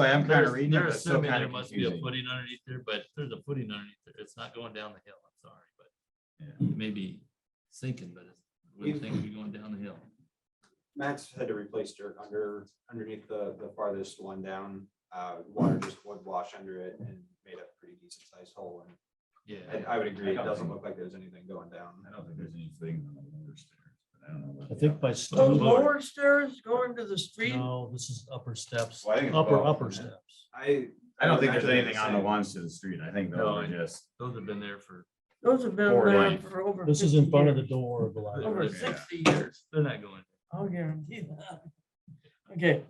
Like, I'm kind They're of reading it, they're but it's still assuming kind there of must be a confusing. footing underneath there, but there's a footing underneath there. It's not going down the hill, I'm sorry, Yeah. but maybe sinking, but it's, wouldn't think it'd be going down the hill. Max had to replace dirt under, underneath the, the farthest one down. Uh, water just would wash under it and made a pretty decent sized hole. And Yeah, I, I would agree, it doesn't look like there's anything going down. I don't think there's anything on the lower stairs, but I don't know. about I the think upper. by The Those stone, lower- lower stairs going to the street, no, this is upper steps, Well, I think it's upper, both, upper isn't it? steps. I. I don't think would there's imagine anything on the same. ones to the street. I think No, those are I- just. those have been there for, those have been Four there lanes. for over. This is in 50 front of the years, door of the library. Over Yeah. sixty years, they're not going. I'll guarantee that. Okay,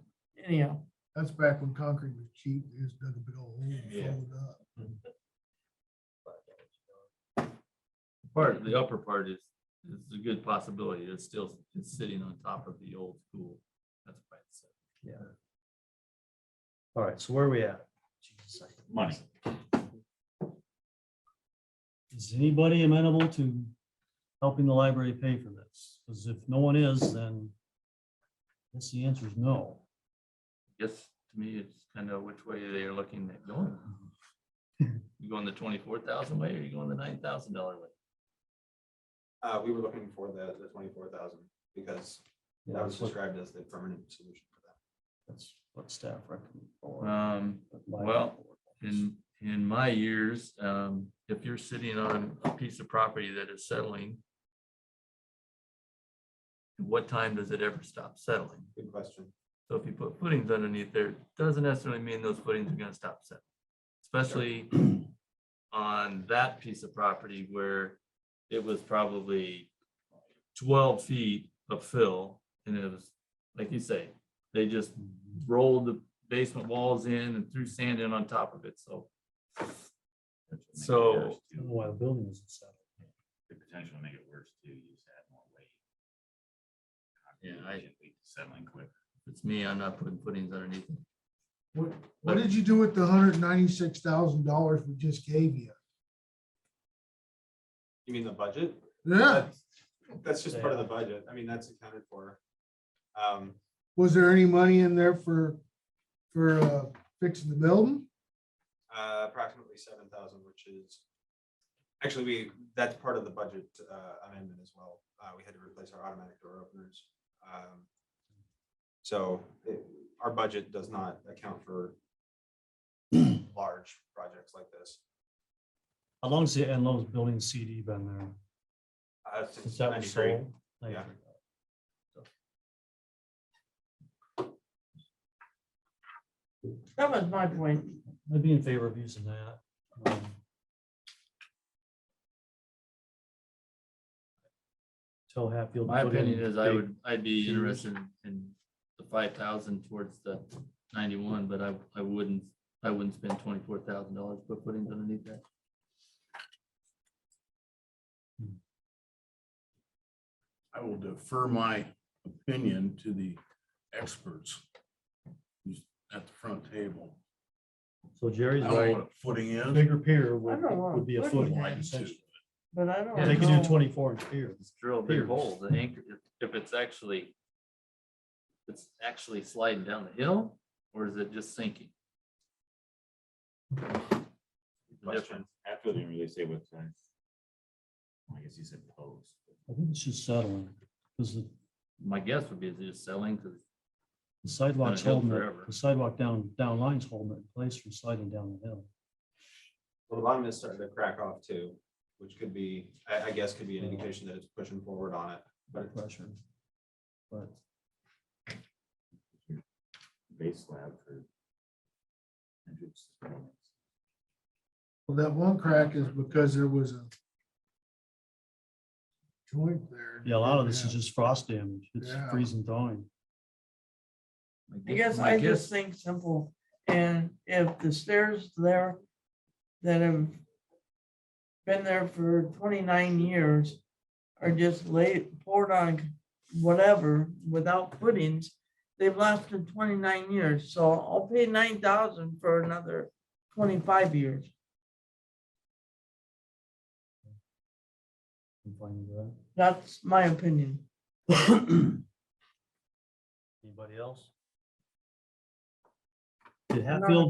anyhow, That's back when concrete was cheap, they just dug a big old hole and Yeah. filled it up. Part, of the upper part is, is a good possibility. It's still, it's sitting on top of the old school. That's why it's. All right, so where are we at? Jesus, I- Money. Is anybody amenable to helping the library pay for this? Because if no one is, then I guess the answer is no. Yes, to me, it's kind of which way they are looking at going. You going the twenty-four thousand way or you going the nine thousand dollar way? Uh, we were looking for the, the twenty-four thousand because that was described as the permanent solution for that. That's what staff recommend. for Um, well, in, in my years, um, if you're sitting on a piece of property that is settling, at what time does it ever stop settling? Good question. So if you put footings underneath there, doesn't necessarily mean those footings are gonna stop settling. Especially on that piece of property where it was probably twelve feet of fill. And it was, like you say, they just rolled the basement walls in and threw sand in on top of it, so. That's what makes it So- worse, too. Why the building isn't settled. The potential to make it worse too, you just add more weight. Yeah, I- Constantly Settling quick. It's me, I'm not putting footings underneath. it. What, what did you do with the hundred ninety-six thousand dollars we just gave you? You mean the budget? Yeah, That's just part of the budget. I mean, that's accounted for. Um, was there any money in there for, for uh, fixing the building? uh, approximately seven thousand, which is. Actually, we, that's part of the budget uh, amendment as well. Uh, we had to replace our automatic door openers. Um, So it- our budget does not account for. Large projects like this. How long's the Enlow's building CD been there? Uh, Since since that was 93. sold? Yeah. that was my point. I'd be in favor of using that. um, Tell Hatfield. to My put in opinion is I big- would, I'd be shoes. interested in the five thousand towards the ninety-one, but I, I wouldn't, I wouldn't spend twenty-four thousand dollars for footings underneath that. I will defer my opinion to the experts who's at the front table. So I Jerry's don't know right, what a footing is. bigger pier I would, don't want would be a footing foot. Wide essentially. But I don't. Yeah, They could do know. twenty-four inch pier. Just drill a big Piers. hole, the anchor, if- if it's actually, it's actually sliding down the hill, or is it just sinking? The difference. Question. Hatfield didn't really say what size. I guess he said pose. I think it's just settling, because the My guess would be it's just selling, because the sidewalk's hill holding forever. it, the sidewalk down, down line's holding it in place from sliding down the hill. Well, the bottom is starting to crack off too, which could be, I, I guess could be an indication that it's pushing forward on it. by pressure. But Base slab for. entrance. Well, that one crack is because there was a joint there. yeah, a lot of this is just frost damage. It's Yeah. freezing thawing. I guess my I guess- just think simple, and if the stairs there that have been there for twenty-nine years are just laid, poured on whatever, without footings, they've lasted twenty-nine years, so I'll pay nine thousand for another twenty-five years. I'm fine with that. That's my opinion. Anybody else? Did Hatfield